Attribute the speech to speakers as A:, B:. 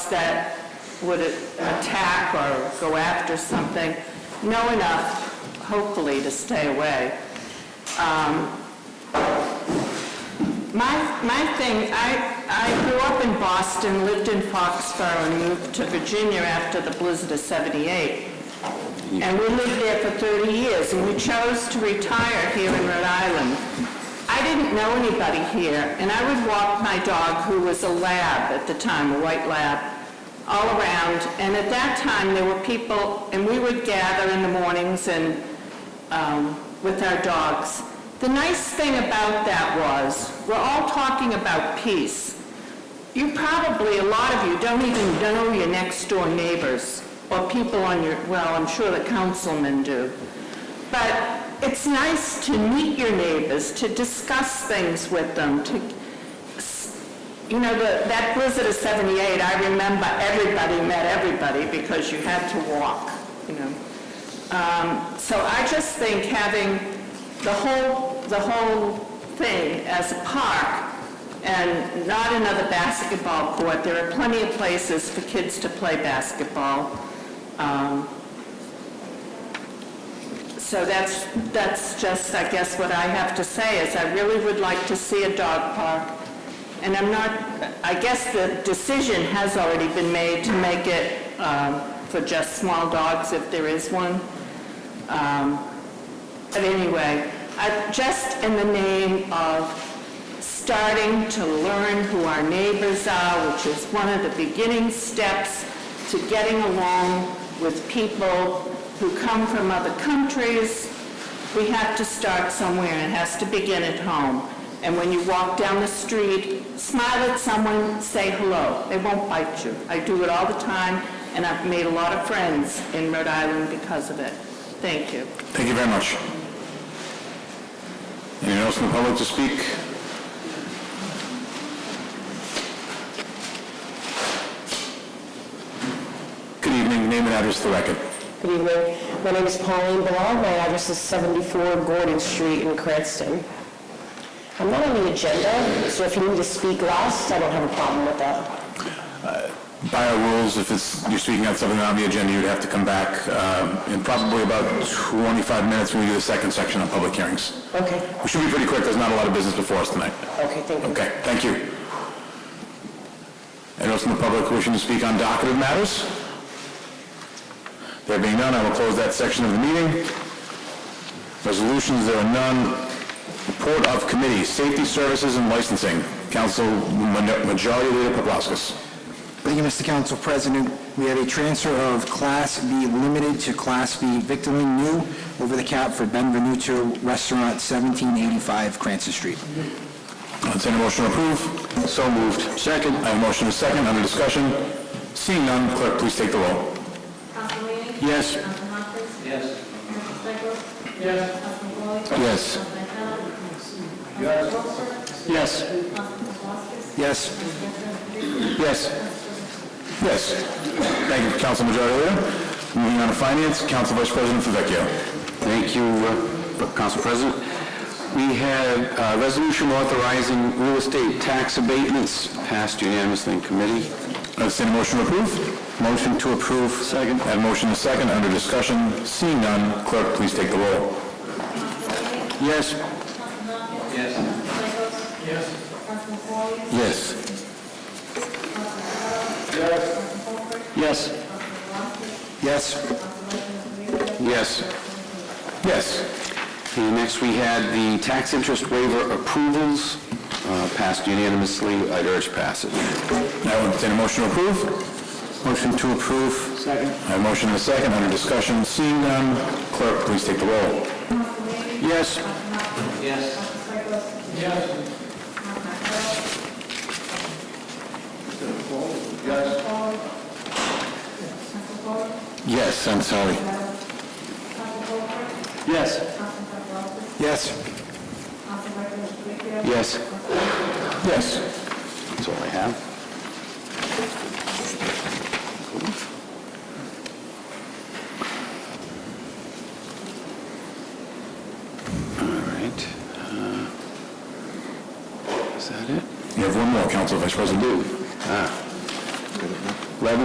A: that would attack or go after something, know enough, hopefully, to stay away. Um, My, my thing, I, I grew up in Boston, lived in Foxborough, and moved to Virginia after the blizzard of 78. And we lived there for 30 years, and we chose to retire here in Rhode Island. I didn't know anybody here, and I would walk my dog, who was a lab at the time, a white lab, all around. And at that time, there were people, and we would gather in the mornings and um, with our dogs. The nice thing about that was, we're all talking about peace. You probably, a lot of you, don't even know your next-door neighbors or people on your, well, I'm sure the councilmen do. But it's nice to meet your neighbors, to discuss things with them, to, you know, the- that blizzard of 78, I remember everybody met everybody because you had to walk, you know. Um, So I just think having the whole, the whole thing as a park and not another basketball court, there are plenty of places for kids to play basketball. Um, So that's, that's just, I guess, what I have to say, is I really would like to see a dog park. And I'm not, I guess the decision has already been made to make it um, for just small dogs if there is one. But anyway, I- just in the name of starting to learn who our neighbors are, which is one of the beginning steps to getting along with people who come from other countries, we have to start somewhere, and it has to begin at home. And when you walk down the street, smile at someone, say hello. They won't bite you. I do it all the time, and I've made a lot of friends in Rhode Island because of it. Thank you.
B: Thank you very much. Anyone else in the public to speak? Good evening, name and address for the record.
C: Good evening. My name is Pauline Ballard. My address is 74 Gordon Street in Cranston. I'm not on the agenda, so if you need to speak last, I don't have a problem with that.
B: By our rules, if it's, you're speaking on something on the agenda, you'd have to come back um, in probably about 25 minutes when we do the second section on public hearings.
C: Okay,
B: We should be pretty quick, there's not a lot of business before us tonight.
C: okay, thank you.
B: Okay, thank you. Anyone else in the public wishing to speak on docketed matters? There being none, I will close that section of the meeting. Resolutions, there are none. Report of committee, safety services and licensing. Council Mon- Majority Leader Paplaskas.
D: Thank you, Mr. Council President. We have a transfer of Class B Limited to Class B Victorine New over the cap for Benvenuto Restaurant, 1785 Cranston Street.
B: Entertained a motion to approve. So moved. Second. I have a motion and a second, under discussion. Seeing none, clerk, please take the roll.
E: Council Leahy?
B: Yes.
E: Council Humphreys? Yes. Council Stieglus? Yes. Council Foley?
B: Yes.
E: Council McDonald? Yes. Council Wilson?
B: Yes.
E: Council Voskis?
D: Yes.
B: Yes. Yes. Thank you, Council Majority Leader. Moving on to Finance, Council Vice President Favecchio.
F: Thank you, uh, Council President. We have a resolution authorizing real estate tax abatements passed unanimously in committee.
B: Entertained a motion to approve? Motion to approve. Second. I have a motion and a second, under discussion. Seeing none, clerk, please take the roll. Yes.
E: Council Hopkins? Yes. Council Stieglus? Yes. Council Foley?
B: Yes. Yes.
D: Yes.
F: Yes.
B: Yes.
F: And next, we had the tax interest waiver approvals uh, passed unanimously. I'd urge passage.
B: Now entertain a motion to approve? Motion to approve. Second. I have a motion and a second, under discussion. Seeing none, clerk, please take the roll. Yes. Yes, I'm sorry. Yes.
D: Yes.
B: Yes. Yes.
F: That's all I have. All right. uh, Is that it?
B: You have one more, Council Vice President.
F: Ah,